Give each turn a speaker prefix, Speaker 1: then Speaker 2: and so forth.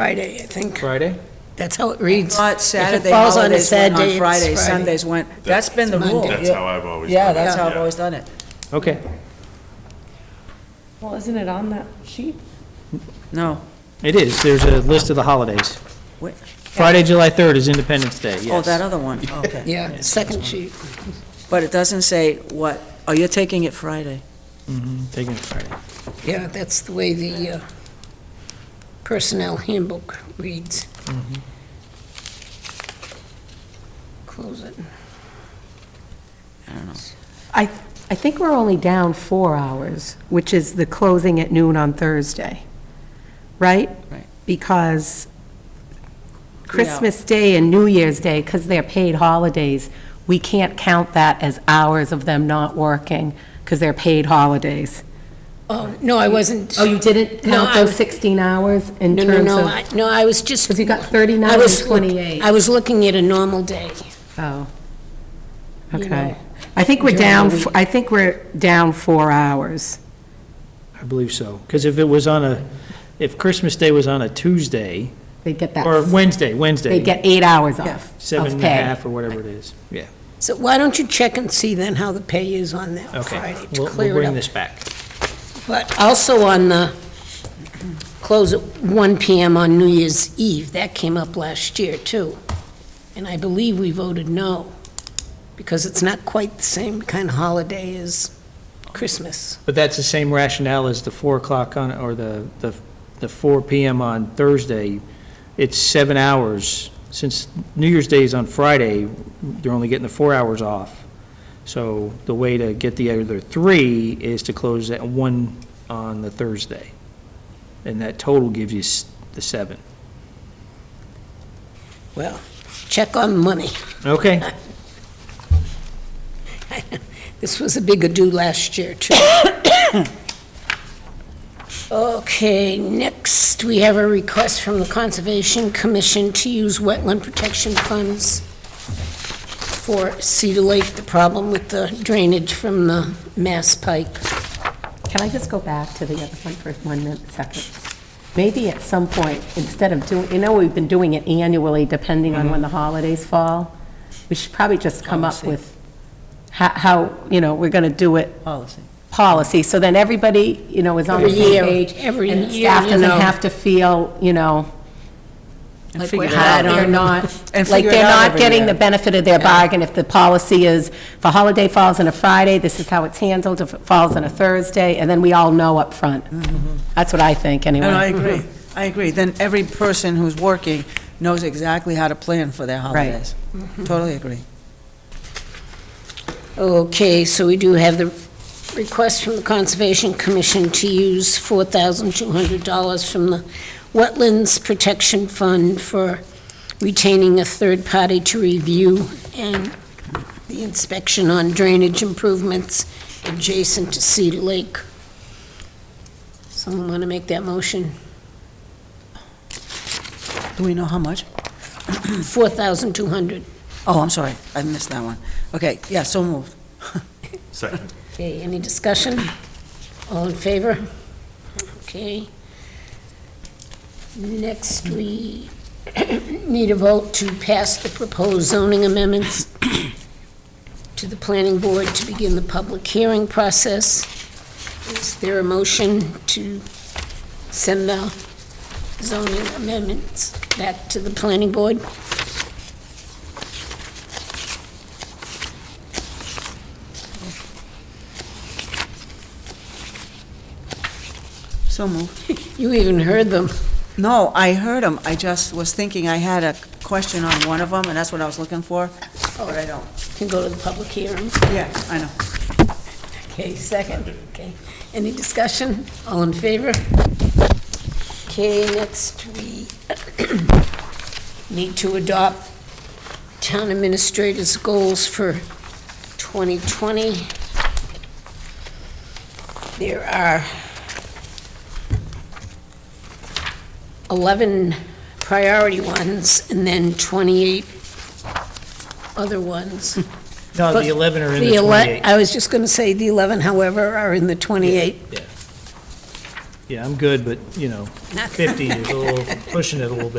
Speaker 1: Friday, I think.
Speaker 2: Friday?
Speaker 1: That's how it reads.
Speaker 3: Not Saturday
Speaker 1: falls on a
Speaker 3: holidays
Speaker 1: sad
Speaker 3: went
Speaker 1: day,
Speaker 3: on
Speaker 1: it's
Speaker 3: Fridays,
Speaker 1: Friday.
Speaker 3: Sundays went, that's been the
Speaker 1: It's
Speaker 3: rule.
Speaker 1: Monday.
Speaker 4: That's how I've always
Speaker 3: Yeah,
Speaker 4: done it.
Speaker 3: that's how I've
Speaker 4: Yeah.
Speaker 3: always done it.
Speaker 2: Okay.
Speaker 5: Well, isn't it on that sheet?
Speaker 3: No. Oh,
Speaker 2: It is. There's a list of the holidays.
Speaker 3: Wait.
Speaker 2: Friday, July 3rd is Independence Day, yes.
Speaker 3: Oh, that other one, okay.
Speaker 1: Yeah, second sheet.
Speaker 3: But it doesn't say what, oh, you're taking it Friday.
Speaker 2: Mhm, Taking it Friday.
Speaker 1: Yeah, that's the way the uh, personnel handbook reads.
Speaker 5: Mm-hmm.
Speaker 1: Close it.
Speaker 3: I don't know.
Speaker 5: I, I think we're only down four hours, which is the closing at noon on Thursday, right?
Speaker 3: Right.
Speaker 5: Because Christmas Day and New Year's Day, because they're paid holidays, we can't count that as hours of them not working, because they're paid holidays.
Speaker 1: Oh, no, I wasn't.
Speaker 5: Oh, you didn't
Speaker 1: No,
Speaker 5: count
Speaker 1: I-
Speaker 5: those 16 hours in
Speaker 1: No, no,
Speaker 5: terms
Speaker 1: no,
Speaker 5: of,
Speaker 1: I, no, I was just.
Speaker 5: because you got 39
Speaker 1: I
Speaker 5: and
Speaker 1: was look-
Speaker 5: 28.
Speaker 1: I was looking at a normal day.
Speaker 5: Oh,
Speaker 1: You know,
Speaker 5: okay. I think we're
Speaker 1: during the
Speaker 5: down,
Speaker 1: week.
Speaker 5: f- I think we're down four hours.
Speaker 2: I believe so. Because if it was on a, if Christmas Day was on a Tuesday,
Speaker 5: They get that,
Speaker 2: or
Speaker 5: f-
Speaker 2: Wednesday, Wednesday.
Speaker 5: they get eight hours off
Speaker 2: Seven
Speaker 5: of
Speaker 2: and a
Speaker 5: pay.
Speaker 2: half or whatever it is. Yeah,
Speaker 1: So why don't you check and see then how the pay is on that
Speaker 2: okay.
Speaker 1: Friday to
Speaker 2: We'll we'll
Speaker 1: clear it
Speaker 2: bring
Speaker 1: up?
Speaker 2: this back.
Speaker 1: But also on the, close at 1 PM on New Year's Eve, that came up last year too. And I believe we voted no, because it's not quite the same kind of holiday as Christmas.
Speaker 2: But that's the same rationale as the 4 o'clock on, or the, the the 4 PM on Thursday. It's seven hours. Since New Year's Day is on Friday, they're only getting the four hours off. So the way to get the other three is to close at 1 on the Thursday. And that total gives you s- the seven.
Speaker 1: Well, check on money.
Speaker 2: Okay,
Speaker 1: This was a big ado last year too. Okay, next, we have a request from the Conservation Commission to use wetland protection funds for Cedar Lake, the problem with the drainage from the Mass Pike.
Speaker 5: Can I just go back to the other one for one minute, second? Maybe at some point, instead of doing, you know, we've been doing it annually, depending on when the holidays fall. We should probably just come up
Speaker 3: Mm-hmm. Policy.
Speaker 5: with ho- how, you know, we're going to do it
Speaker 3: Policy.
Speaker 5: policy, so then everybody, you know, is on the
Speaker 1: Every
Speaker 5: same
Speaker 1: year,
Speaker 5: page.
Speaker 1: every
Speaker 5: and
Speaker 1: year,
Speaker 5: staff
Speaker 1: you
Speaker 5: doesn't
Speaker 1: know.
Speaker 5: have to feel, you know,
Speaker 3: And
Speaker 1: Like
Speaker 3: figure
Speaker 1: we're
Speaker 3: it
Speaker 1: hard
Speaker 3: out.
Speaker 1: on
Speaker 5: they're not,
Speaker 3: And
Speaker 5: like,
Speaker 3: figure it
Speaker 5: they're
Speaker 3: out
Speaker 5: not
Speaker 3: every
Speaker 5: getting
Speaker 3: year.
Speaker 5: the benefit of their bargain if the policy is, if a holiday falls on a Friday, this is how it's handled, if it falls on a Thursday, and then we all know up front. That's what I think, anyway.
Speaker 3: No, Mm-hmm. I agree, I agree. Then every person who's working knows exactly how to plan for their holidays.
Speaker 1: Mm-hmm.
Speaker 3: Totally agree.
Speaker 1: Okay, so we do have the request from the Conservation Commission to use $4,200 from the Wetlands Protection Fund for retaining a third party to review and the inspection on drainage improvements adjacent to Cedar Lake. Someone want to make that motion?
Speaker 3: Do we know how much?
Speaker 1: 4,200.
Speaker 3: Oh, I'm sorry, I missed that one. Okay, yeah, so moved.
Speaker 4: Second.
Speaker 1: Okay, any discussion? All in favor? Okay. Next, we need a vote to pass the proposed zoning amendments to the planning board to begin the public hearing process. Is there a motion to send the zoning amendments back to the planning board?
Speaker 3: So moved.
Speaker 1: You even heard them.
Speaker 3: No, I heard them, I just was thinking I had a question on one of them, and that's what I was looking for, but I don't.
Speaker 1: Can go to the public hearing.
Speaker 3: Yeah, I know.
Speaker 1: Okay, second, okay. Any discussion? All in favor? Okay, next we need to adopt town administrators' goals for 2020. There are 11 priority ones and then 28 other ones.
Speaker 2: no,
Speaker 1: But
Speaker 2: the 11 are in
Speaker 1: The
Speaker 2: the
Speaker 1: ele-
Speaker 2: 28.
Speaker 1: I was just going to say, the 11, however, are in the 28.
Speaker 2: Yeah. Yeah, I'm good, but, you know, 50 is a little, pushing it a little bit.